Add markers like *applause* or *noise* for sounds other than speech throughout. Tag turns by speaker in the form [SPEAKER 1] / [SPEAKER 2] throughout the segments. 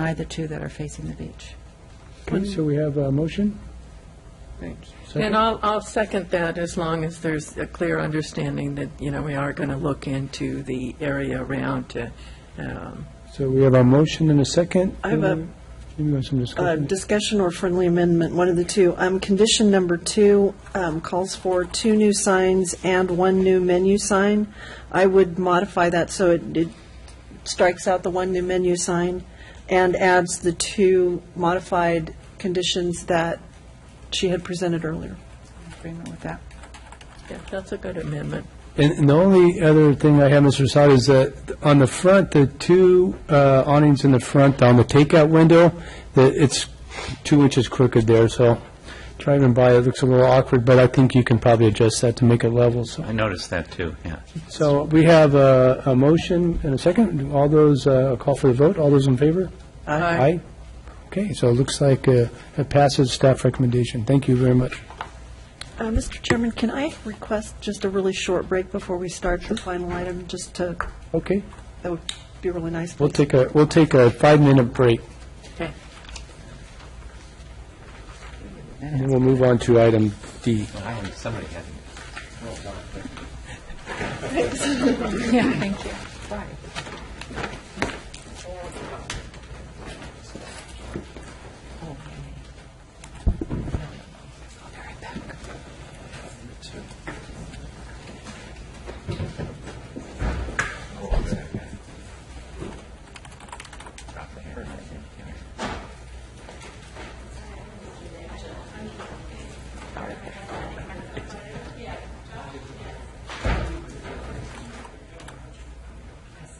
[SPEAKER 1] deny the two that are facing the beach.
[SPEAKER 2] Okay, so we have a motion?
[SPEAKER 3] And I'll, I'll second that as long as there's a clear understanding that, you know, we are going to look into the area around. uh, um,
[SPEAKER 2] So we have a motion and a second.
[SPEAKER 4] I have a-
[SPEAKER 2] Maybe we have some
[SPEAKER 4] Uh,
[SPEAKER 2] discussion.
[SPEAKER 4] Discussion or friendly amendment, one of the two. Um, Condition number two um, calls for two new signs and one new menu sign. I would modify that so it it strikes out the one new menu sign and adds the two modified conditions that she had presented earlier.
[SPEAKER 1] Agreement with that?
[SPEAKER 3] yeah, That's a good amendment.
[SPEAKER 2] And and the only other thing I have, Mr. Assad, is that on the front, the two uh, awnings in the front on the takeout window, the- it's two inches crooked there, so driving by, it looks a little awkward, but I think you can probably adjust that to make it level, so.
[SPEAKER 5] I noticed that, too, yeah.
[SPEAKER 2] So we have a, a motion and a second. All those, uh, call for the vote. All those in favor?
[SPEAKER 4] Uh,
[SPEAKER 2] Aye. Okay, so it looks like uh, it passes staff recommendation. Thank you very much.
[SPEAKER 4] Uh, Mr. Chairman, can I request just a really short break before we start the final item, just to,
[SPEAKER 2] Okay,
[SPEAKER 4] that would be really nice.
[SPEAKER 2] we'll
[SPEAKER 4] please.
[SPEAKER 2] take a, we'll take a five-minute break,
[SPEAKER 3] Okay.
[SPEAKER 2] and then we'll move on to item D.
[SPEAKER 5] Somebody had
[SPEAKER 1] Yeah, thank you.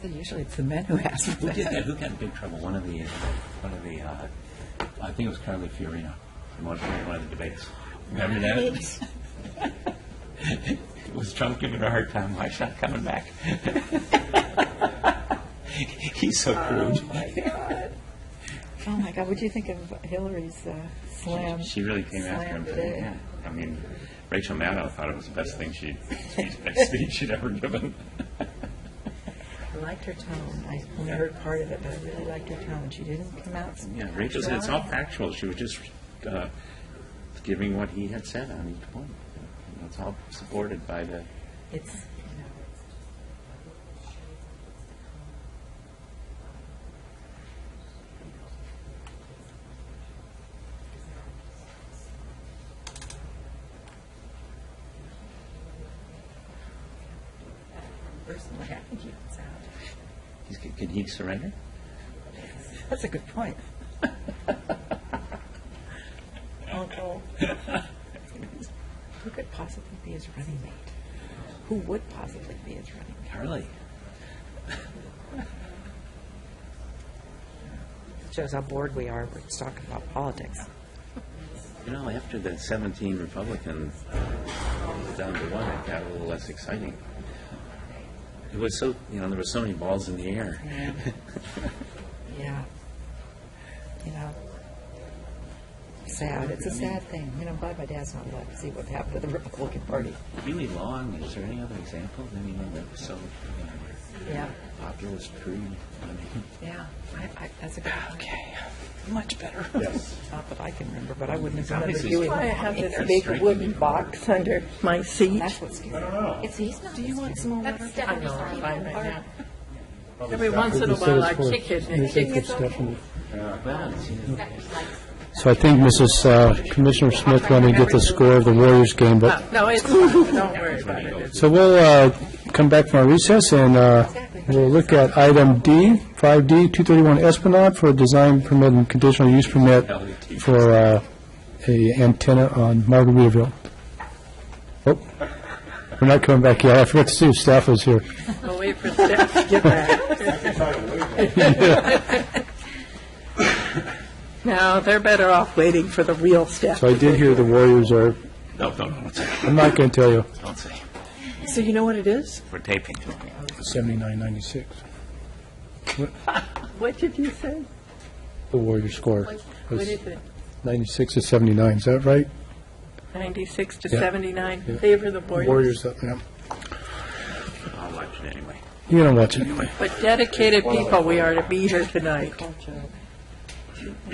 [SPEAKER 1] Usually it's the men who ask for
[SPEAKER 5] Who
[SPEAKER 1] that.
[SPEAKER 5] did that? Who got in big trouble? One of the, uh, one of the, uh, I think it was Carly Fiorina, in one one of the debates. Remember that? It *laughs* was Trump giving her a hard time, why she's not coming back? *laughs* He's so crude.
[SPEAKER 1] *laughs* Oh, my God, what do you think of Hillary's uh, slam?
[SPEAKER 5] She really came after
[SPEAKER 1] slam
[SPEAKER 5] him. for
[SPEAKER 1] today?
[SPEAKER 5] that, yeah. I mean, Rachel Maddow thought it was the best thing she, speech she'd ever given.
[SPEAKER 1] I liked her tone. I only heard part of it, but I really liked her tone. She didn't come out.
[SPEAKER 5] Yeah, Rachel said it's all factual. She was just uh, giving what he had said on each point. And It's all supported by the.
[SPEAKER 1] It's, you know, personally, I think he was out.
[SPEAKER 5] He's, can he surrender?
[SPEAKER 1] That's a good point. *laughs* Uncle. Who could possibly be his running mate? Who would possibly be his running mate?
[SPEAKER 5] Carly.
[SPEAKER 1] Shows how bored we are with talking about politics.
[SPEAKER 5] You know, after the 17 Republican was down to one, it got a little less exciting. It was so, you know, there were so many balls in the air.
[SPEAKER 1] Yeah. You know, sad. It's a sad thing. You know, I'm glad my dad's not alive to see what happened to the Republican Party.
[SPEAKER 5] Really long. Is there any other example of anyone that was so you
[SPEAKER 1] Yeah.
[SPEAKER 5] know, populist, crude? I mean,
[SPEAKER 1] Yeah. I, I, that's a good point. Okay.
[SPEAKER 5] much better. Yes.
[SPEAKER 1] *laughs* Not that I can remember, but I wouldn't have remembered
[SPEAKER 5] Obviously,
[SPEAKER 1] you.
[SPEAKER 3] Why I have this
[SPEAKER 5] It's
[SPEAKER 3] big
[SPEAKER 5] striking.
[SPEAKER 3] wooden box under my seat.
[SPEAKER 1] That's what's scary. It's, he's not. Do you want some more?
[SPEAKER 3] I know, I'm fine right now. Every once in a
[SPEAKER 2] This is
[SPEAKER 3] while I
[SPEAKER 2] for-
[SPEAKER 3] kick it. and
[SPEAKER 2] this
[SPEAKER 3] it
[SPEAKER 2] is
[SPEAKER 3] kicks
[SPEAKER 2] for Stephanie.
[SPEAKER 5] Well, it's, you know,
[SPEAKER 2] So I think Mrs. uh, Commissioner Smith wanted to get the score of the Warriors game, but,
[SPEAKER 3] No, it's, fine. don't worry about it. It's-
[SPEAKER 2] so we'll uh, come back from our recess, and uh, we'll look at item D, 5D, 231 Esplanade for a design permit and conditional use permit for uh, a antenna on Margaritaville. Oh, we're not coming back yet. I forgot to see if staff was here.
[SPEAKER 3] I'll wait for Steph to get back. No, they're better off waiting for the real Steph.
[SPEAKER 2] So I did hear the Warriors are,
[SPEAKER 5] no, no, no, don't say.
[SPEAKER 2] I'm not going to tell you,
[SPEAKER 5] Don't say.
[SPEAKER 4] So you know what it is?
[SPEAKER 5] We're taping.
[SPEAKER 2] 79-96.
[SPEAKER 3] What did you say?
[SPEAKER 2] The Warriors score
[SPEAKER 3] What
[SPEAKER 2] was
[SPEAKER 3] is it?
[SPEAKER 2] 96 to 79, is that right?
[SPEAKER 3] 96 to
[SPEAKER 2] Yeah.
[SPEAKER 3] 79, favor the Warriors.
[SPEAKER 2] Warriors, up, yeah.
[SPEAKER 5] I'll watch it anyway.
[SPEAKER 2] You don't watch it anyway.
[SPEAKER 3] But dedicated people we are to be here tonight.